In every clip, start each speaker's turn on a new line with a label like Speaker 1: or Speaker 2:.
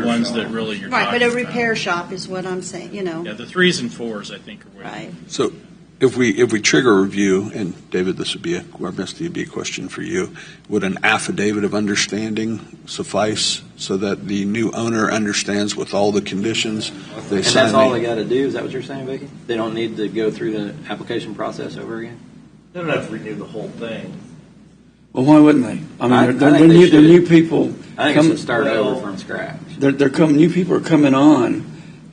Speaker 1: The ones that really you're
Speaker 2: Right, but
Speaker 1: talking
Speaker 2: a
Speaker 1: about.
Speaker 2: repair shop is what I'm saying, you know,
Speaker 1: Yeah, the threes and fours, I think, are where.
Speaker 2: right?
Speaker 3: So if we, if we trigger a review, and David, this would be, a or Misty, it'd be a question for you, would an affidavit of understanding suffice so that the new owner understands with all the conditions they
Speaker 4: And
Speaker 3: sign?
Speaker 4: that's all
Speaker 3: the-
Speaker 4: they got to do, is that what you're saying, Vicki? They don't need to go through the application process over again?
Speaker 5: They don't have to renew the whole thing.
Speaker 6: Well, why wouldn't they? I
Speaker 4: I-
Speaker 6: mean, they're,
Speaker 4: I
Speaker 6: they're,
Speaker 4: think they
Speaker 6: new, they're
Speaker 4: should.
Speaker 6: new people.
Speaker 4: I think
Speaker 6: Come-
Speaker 4: it should start
Speaker 5: Well-
Speaker 4: over from scratch.
Speaker 6: They're, they're coming. New people are coming on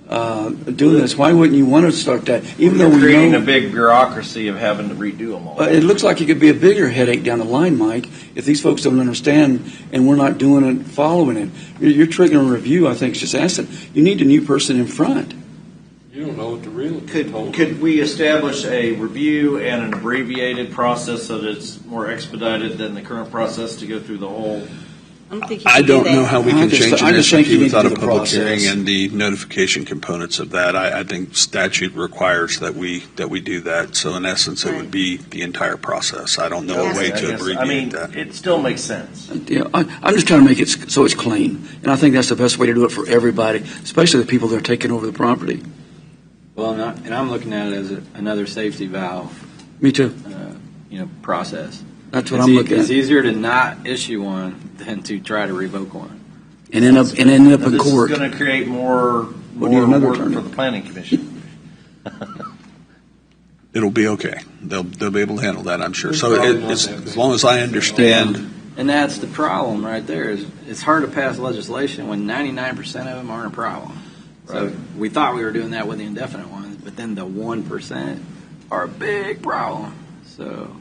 Speaker 6: uh, doing this. Why wouldn't you want to start that? Even though
Speaker 5: You're
Speaker 6: we
Speaker 5: creating
Speaker 6: know
Speaker 5: a big bureaucracy of having to redo them all.
Speaker 6: Uh, it looks like it could be a bigger headache down the line, Mike, if these folks don't understand and we're not doing it, following it. You're, you're triggering a review. I think is just asset. You need a new person in front.
Speaker 7: You don't know what the realtor
Speaker 5: Could,
Speaker 7: told
Speaker 5: could we establish a review and an abbreviated process so that it's more expedited than the current process to go through the whole?
Speaker 2: I don't think you
Speaker 3: I
Speaker 2: can do
Speaker 3: don't know
Speaker 2: that.
Speaker 3: how we
Speaker 6: I
Speaker 3: can
Speaker 6: just-
Speaker 3: change
Speaker 6: I
Speaker 3: an
Speaker 6: just think you
Speaker 3: SUP
Speaker 6: need to
Speaker 3: without a
Speaker 6: do the
Speaker 3: public hearing
Speaker 6: process.
Speaker 3: and the notification components of that. I, I think statute requires that we, that we do that. So in essence, it would
Speaker 2: Right.
Speaker 3: be the entire process. I don't know
Speaker 2: Yeah.
Speaker 3: a way
Speaker 5: I
Speaker 3: to
Speaker 5: guess- I
Speaker 3: abbreviate
Speaker 5: mean,
Speaker 3: that.
Speaker 5: it still makes sense.
Speaker 6: Yeah, I, I'm just trying to make it s- so it's clean, and I think that's the best way to do it for everybody, especially the people that are taking over the property.
Speaker 4: Well, and I- and I'm looking at it as a- another safety valve,
Speaker 6: Me too.
Speaker 4: uh, you know, process.
Speaker 6: That's what
Speaker 4: It's
Speaker 6: I'm
Speaker 4: e-
Speaker 6: looking
Speaker 4: It's
Speaker 6: at,
Speaker 4: easier to not issue one than to try to revoke one.
Speaker 6: and end up and end up in
Speaker 5: This is
Speaker 6: court.
Speaker 5: going to create more,
Speaker 6: We'll need
Speaker 5: more
Speaker 6: another
Speaker 5: work
Speaker 6: attorney.
Speaker 5: for the planning commission.
Speaker 3: It'll be okay. They'll, they'll be able to handle that, I'm sure. So
Speaker 7: Probably
Speaker 3: it-
Speaker 7: not
Speaker 3: as,
Speaker 7: that big.
Speaker 3: as long as I understand,
Speaker 4: And that's the problem right there, is it's hard to pass legislation when 99% of them aren't a problem. So we thought we were doing that with the indefinite ones, but then the 1% are a big problem, so.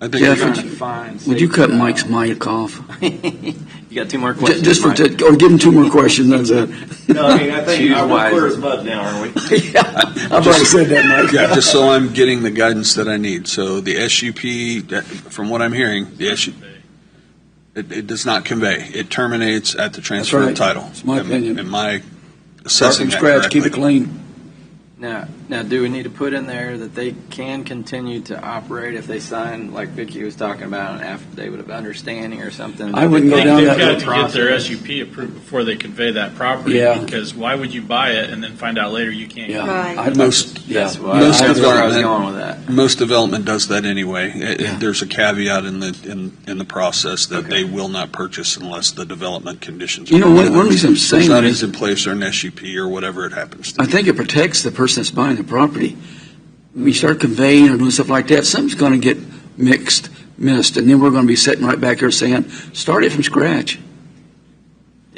Speaker 3: I think.
Speaker 6: Yeah,
Speaker 4: trying to
Speaker 6: would you-
Speaker 4: find
Speaker 6: Would you
Speaker 4: safety
Speaker 6: cut
Speaker 4: valve.
Speaker 6: Mike's mic off?
Speaker 4: You got two more
Speaker 6: Ju-
Speaker 4: questions.
Speaker 6: Just for,
Speaker 4: Mike.
Speaker 6: ju- or give him two more questions, that's it.
Speaker 5: No, I mean, I think
Speaker 4: Choose
Speaker 5: uh, we're clear
Speaker 4: wisely.
Speaker 5: as mud now, aren't we?
Speaker 6: I've already said that, Mike.
Speaker 3: Yeah, just so I'm getting the guidance that I need. So the SUP, that- from what I'm hearing, the SUP, it, it does not convey. It terminates at the transfer
Speaker 6: right.
Speaker 3: of title.
Speaker 6: It's my
Speaker 3: Am-
Speaker 6: opinion.
Speaker 3: Am I
Speaker 6: Start
Speaker 3: assessing
Speaker 6: from
Speaker 3: that
Speaker 6: scratch, keep it
Speaker 3: correctly?
Speaker 6: clean.
Speaker 4: Now, now, do we need to put in there that they can continue to operate if they sign, like Vicky was talking about, an affidavit of understanding or something?
Speaker 6: I wouldn't go
Speaker 1: They've
Speaker 6: down that
Speaker 1: got
Speaker 6: road.
Speaker 1: to get their SUP approved before they convey that property.
Speaker 6: Yeah.
Speaker 1: Because why would you buy it and then find out later you can't?
Speaker 6: Yeah.
Speaker 2: Right.
Speaker 6: I'd-
Speaker 3: Most-
Speaker 6: yeah.
Speaker 4: That's why-
Speaker 3: Most
Speaker 4: that's where I was
Speaker 3: development-
Speaker 4: going with that.
Speaker 3: Most development does that anyway. It- it-
Speaker 6: Yeah.
Speaker 3: There's a caveat in the, in, in the process that
Speaker 4: Okay.
Speaker 3: they will not purchase unless the development conditions.
Speaker 6: You
Speaker 3: are
Speaker 6: know, one-
Speaker 3: met.
Speaker 6: one reason I'm
Speaker 3: There's
Speaker 6: saying
Speaker 3: not
Speaker 6: that-
Speaker 3: is in place or an SUP or whatever it happens to
Speaker 6: I
Speaker 3: be.
Speaker 6: think it protects the person that's buying the property. When you start conveying or doing stuff like that, something's gonna get mixed, missed, and then we're gonna be sitting right back here saying, start it from scratch.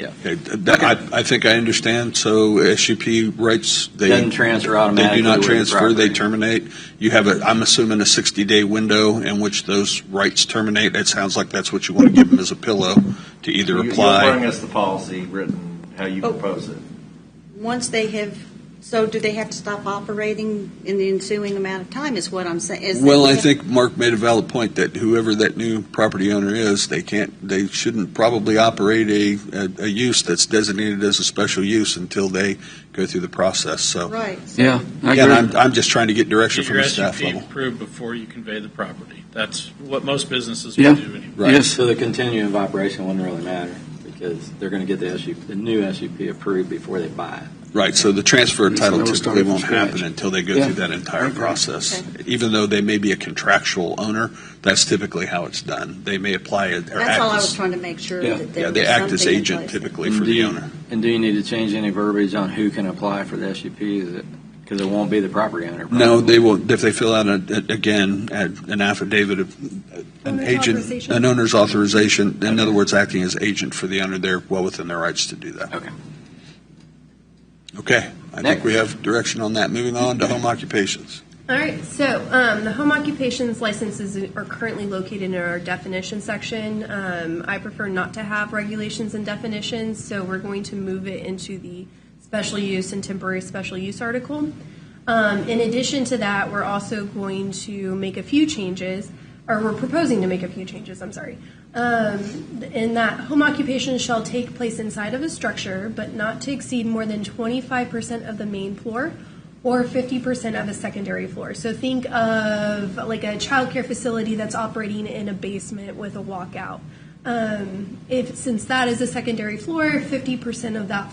Speaker 3: Okay, th- that- I, I think I understand. So SUP rights, they.
Speaker 4: Doesn't transfer
Speaker 3: They
Speaker 4: automatically
Speaker 3: do
Speaker 4: with
Speaker 3: not
Speaker 4: the
Speaker 3: transfer, they
Speaker 4: property.
Speaker 3: terminate. You have a, I'm assuming a 60-day window in which those rights terminate. It sounds like that's what you want to give them as a pillow to either
Speaker 5: You- You'll
Speaker 3: apply.
Speaker 5: bring us the policy written, how you
Speaker 2: Oh.
Speaker 5: propose it.
Speaker 2: Once they have, so do they have to stop operating in the ensuing amount of time is what I'm saying. is that
Speaker 3: Well,
Speaker 2: we
Speaker 3: I
Speaker 2: have-
Speaker 3: think Mark made a valid point that whoever that new property owner is, they can't, they shouldn't probably operate a, a- a use that's designated as a special use until they go through the process, so.
Speaker 2: Right. so-
Speaker 6: Yeah, I
Speaker 3: Again, I'm,
Speaker 6: agree.
Speaker 3: I'm just trying to get direction
Speaker 1: Get
Speaker 3: from
Speaker 1: your
Speaker 3: the staff
Speaker 1: SUP
Speaker 3: level.
Speaker 1: approved before you convey the property. That's what most businesses
Speaker 6: Yeah.
Speaker 1: will do anyway.
Speaker 3: Right.
Speaker 6: Yes,
Speaker 4: So the continuing of operation wouldn't really matter because they're going to get the SUP, the new SUP approved before they buy it.
Speaker 3: Right, so the transfer of
Speaker 6: So
Speaker 3: title
Speaker 6: we'll
Speaker 3: typically
Speaker 6: start from
Speaker 3: won't happen
Speaker 6: scratch.
Speaker 3: until they go
Speaker 6: Yeah.
Speaker 3: through that entire
Speaker 6: Okay.
Speaker 3: process. Even though they may be a contractual owner, that's typically how it's done. They may apply it, or
Speaker 2: That's all I
Speaker 3: act
Speaker 2: was
Speaker 3: as,
Speaker 2: trying to make sure
Speaker 6: Yeah.
Speaker 2: that there
Speaker 3: yeah,
Speaker 2: was
Speaker 3: they act as
Speaker 2: something in
Speaker 3: agent
Speaker 2: place.
Speaker 3: typically
Speaker 6: Mm-hmm.
Speaker 3: for the
Speaker 4: Indeed.
Speaker 3: owner.
Speaker 4: And do you need to change any verbiage on who can apply for the SUP? Is it, because it won't be the property owner.
Speaker 3: No,
Speaker 4: probably.
Speaker 3: they will, if they fill out, a- a- again, a- an affidavit of, an
Speaker 2: Owner's
Speaker 3: agent,
Speaker 2: authorization.
Speaker 3: an owner's authorization, in other words, acting as agent for the owner, they're well within their rights to do that.
Speaker 4: Okay.
Speaker 3: Okay, I think
Speaker 4: Next.
Speaker 3: we have direction on that. Moving on to home occupations.
Speaker 8: All right, so um, the home occupations licenses are currently located in our definition section. Um, I prefer not to have regulations and definitions, so we're going to move it into the special use and temporary special use article. Um, in addition to that, we're also going to make a few changes, or we're proposing to make a few changes, I'm sorry. Um, in that home occupation shall take place inside of a structure, but not to exceed more than 25% of the main floor or 50% of a secondary floor. So think of like a childcare facility that's operating in a basement with a walkout. Um, if, since that is a secondary floor, 50% of that